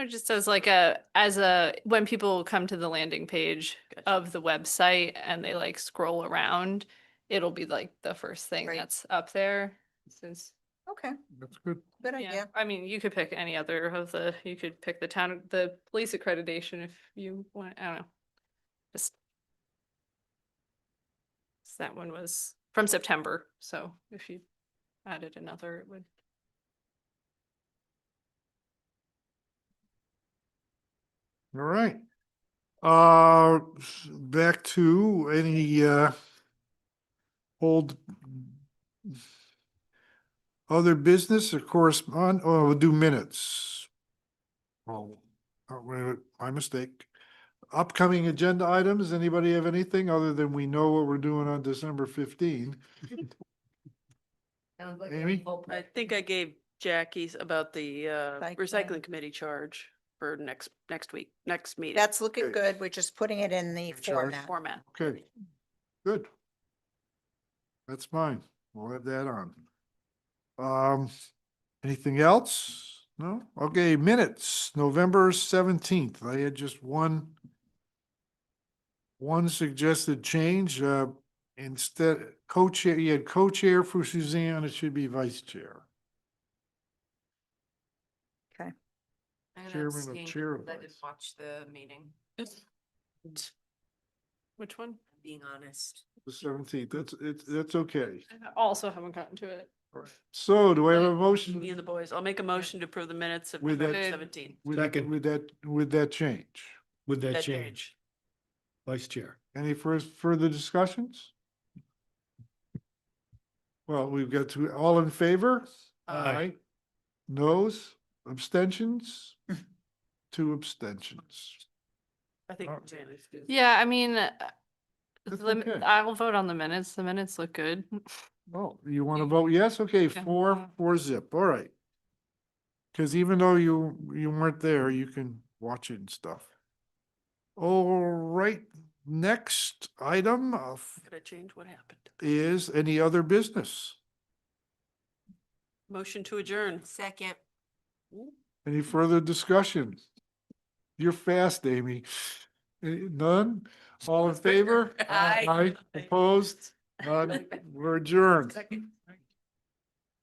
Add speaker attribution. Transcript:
Speaker 1: Or just as like a, as a, when people come to the landing page of the website and they like scroll around, it'll be like the first thing
Speaker 2: Right.
Speaker 1: that's up there since,
Speaker 2: Okay,
Speaker 3: That's good.
Speaker 2: good
Speaker 1: yeah,
Speaker 2: idea.
Speaker 1: I mean, you could pick any other of the, you could pick the town, the police accreditation if you want, I don't know. Just. 'cause That one was from September, so if you added another, it would.
Speaker 3: All right. Uh, s- back to any, uh, old other business or correspond, oh, we'll do minutes. Oh, uh, wait, a minute, my mistake. Upcoming agenda items, anybody have anything other than we know what we're doing on December fifteen? Amy?
Speaker 4: I think I gave Jackie's about the uh,
Speaker 2: Recycling.
Speaker 4: recycling committee charge for next, next week, next meeting.
Speaker 2: That's looking
Speaker 3: Okay.
Speaker 2: good. We're just putting it in the
Speaker 3: Good charge.
Speaker 2: format.
Speaker 4: Format.
Speaker 3: Okay, good. That's fine. We'll have that on. Um, anything else? No? Okay, minutes, November seventeenth. I had just one one suggested change, uh, instead, co-chair, you had co-chair for Suzanne, it should be vice chair. Chairman of chair of
Speaker 5: I didn't
Speaker 3: vice.
Speaker 5: watch the meeting,
Speaker 1: Which one?
Speaker 5: being honest.
Speaker 3: The seventeenth, that's, it's, that's okay.
Speaker 1: I also haven't gotten to it.
Speaker 3: So do I have a
Speaker 4: Me
Speaker 3: motion
Speaker 4: and the boys. I'll make a motion to approve the minutes of
Speaker 3: With that-
Speaker 4: November seventeenth.
Speaker 3: with that,
Speaker 6: Second.
Speaker 3: with that, with that change?
Speaker 6: With that change, vice chair.
Speaker 3: Any first, further discussions? Well, we've got to, all in favor?
Speaker 6: Aye.
Speaker 3: Noes, abstentions? Two abstentions.
Speaker 4: I think.
Speaker 3: Alright.
Speaker 4: Janice did.
Speaker 1: Yeah, I mean, uh,
Speaker 3: That's
Speaker 1: the mi-
Speaker 3: okay.
Speaker 1: I'll vote on the minutes. The minutes look good.
Speaker 3: Oh, you want to vote yes? Okay,
Speaker 1: Yeah.
Speaker 3: four, four zip, all right. Because even though you, you weren't there, you can watch it and stuff. All right, next item of-
Speaker 4: Could I change what happened?
Speaker 3: is any other business?
Speaker 4: Motion to adjourn.
Speaker 5: Second.
Speaker 3: Any further discussion? You're fast, Amy. Eh, None? All in favor?
Speaker 4: Aye.
Speaker 3: Opposed? None? We're adjourned.
Speaker 4: Second.